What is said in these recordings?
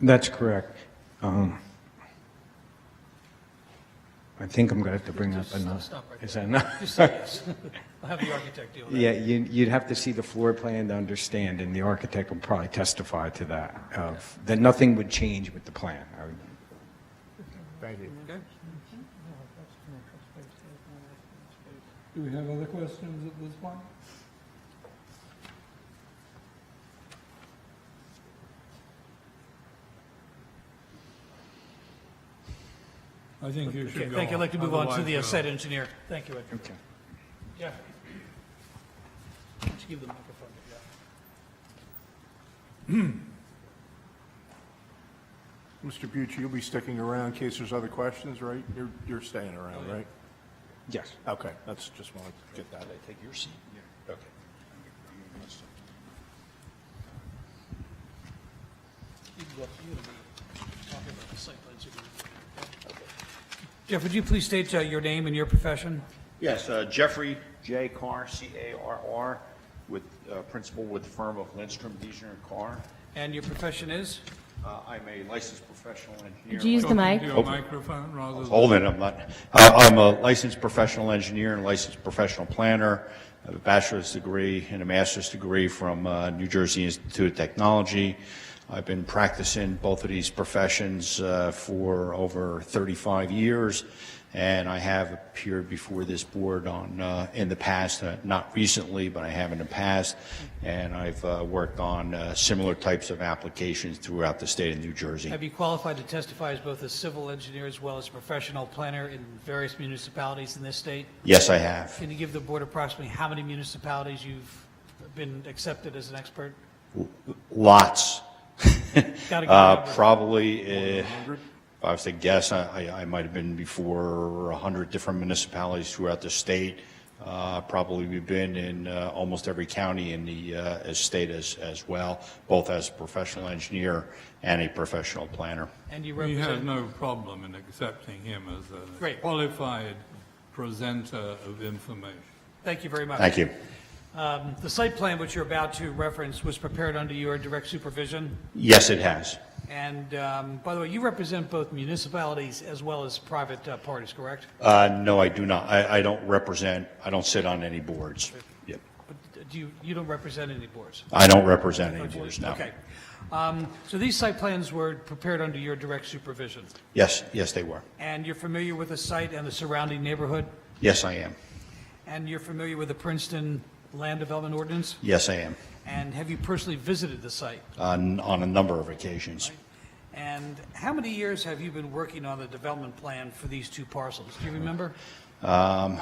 That's correct. Um, I think I'm going to have to bring up Just another. stop right Is that enough? Just say yes. I'll have the architect deal with that. Yeah, you- you'd have to see the floor plan to understand, and the architect will probably testify to that, of- that nothing would change with the plan. I would- Thank you. Okay? Do we have other questions at this point? I think you Okay, should go. thank you. I'd like to move on to the uh, Otherwise, site engineer. Thank you, Ed. Okay. Jeff. Let's give the microphone to Jeff. Mr. Bucci, you'll be sticking around in case there's other questions, right? You're, you're staying around, right? Yes. Okay, that's, just want to get that. I take your seat? Okay. You can go up, you're gonna be talking about the site plans you're gonna- Jeff, would you please state uh, your name and your profession? Yes, uh, Jeffrey J. Carr, C-A-R-R, with, uh, principal with the firm of Lindstrom, Deisner and Carr. And your profession is? Uh, I'm a licensed professional Could you engineer. use the mic? Talking to a microphone rather than. Hold it, I'm not, uh, I'm a licensed professional engineer and licensed professional planner. I have a bachelor's degree and a master's degree from uh, New Jersey Institute of Technology. I've been practicing both of these professions uh, for over 35 years, and I have appeared before this board on, uh, in the past, uh, not recently, but I have in the past, and I've uh, worked on uh, similar types of applications throughout the state of New Jersey. Have you qualified to testify as both a civil engineer as well as a professional planner in various municipalities in this state? Yes, I have. Can you give the board approximately how many municipalities you've been accepted as an expert? Lots. Gotta get Uh, out there. Probably, uh, if I was to guess, I, I- I might have been before 100 different municipalities throughout the state. Uh, Probably we've been in uh, almost every county in the uh, as state as, as well, both as a professional engineer and a professional planner. And you We have represent, no problem in accepting him as a Great. qualified presenter of information. thank you very much. Thank you. Um, The site plan which you're about to reference was prepared under your direct supervision. Yes, it has. And um, by the way, you represent both municipalities as well as private uh, parties, correct? Uh, No, I do not. I, I don't represent, I don't sit on any boards. Yep. But do you, you don't represent any boards? I don't represent any boards, no. Okay. Um, So these site plans were prepared under your direct supervision, Yes, yes, they were. and you're familiar with the site and the surrounding neighborhood, Yes, I am. and you're familiar with the Princeton Land Development Ordinance, Yes, I am. and have you personally visited the site? on, on a number of occasions. And how many years have you been working on the development plan for these two parcels? Do you remember? Um,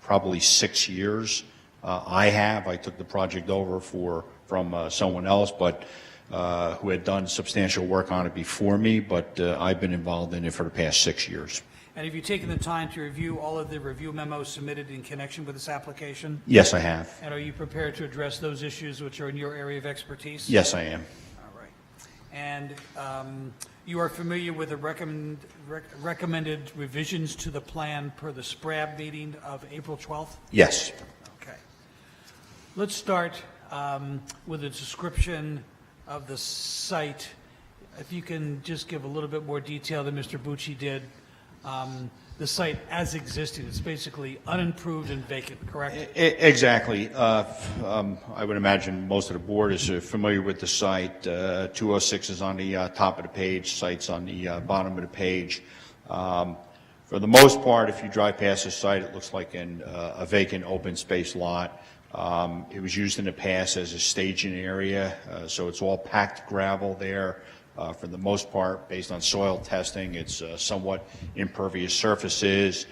Probably six years uh, I have. I took the project over for, from uh, someone else, but uh, who had done substantial work on it before me, but uh, I've been involved in it for the past six years. And have you taken the time to review all of the review memos submitted in connection with this application? Yes, I have. And are you prepared to address those issues which are in your area of expertise? Yes, I am. All right. And um, you are familiar with the recommend- rec- recommended revisions to the plan per the SPRAB meeting of April 12th? Yes. Okay. Let's start um, with a description of the site. If you can just give a little bit more detail than Mr. Bucci did. Um, The site as existing, it's basically unimproved and vacant, correct? E- Exactly. Uh, f- um, I would imagine most of the board is uh, familiar with the site. Uh, 206 is on the uh, top of the page, site's on the uh, bottom of the page. Um, For the most part, if you drive past the site, it looks like an, uh, a vacant open space lot. Um, It was used in the past as a staging area, uh, so it's all packed gravel there. Uh, For the most part, based on soil testing, it's uh, somewhat impervious surfaces.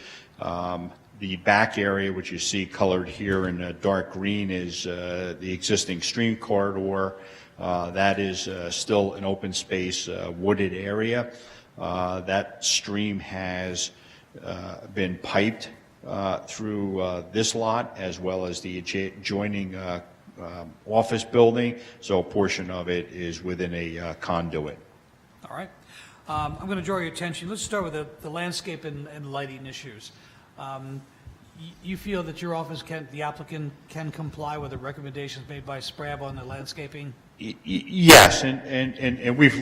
Um, The back area, which you see colored here in uh, dark green, is uh, the existing stream corridor. Uh, That is uh, still an open space uh, wooded area. Uh, That stream has uh, been piped uh, through uh, this lot as well as the adja- adjoining uh, um, office building, so a portion of it is within a uh, conduit. All right. Um, I'm going to draw your attention, let's start with the the landscape and and lighting issues. Um, y- You feel that your office can, the applicant can comply with the recommendations made by SPRAB on the landscaping? Y- y- Yes, and- and and and we've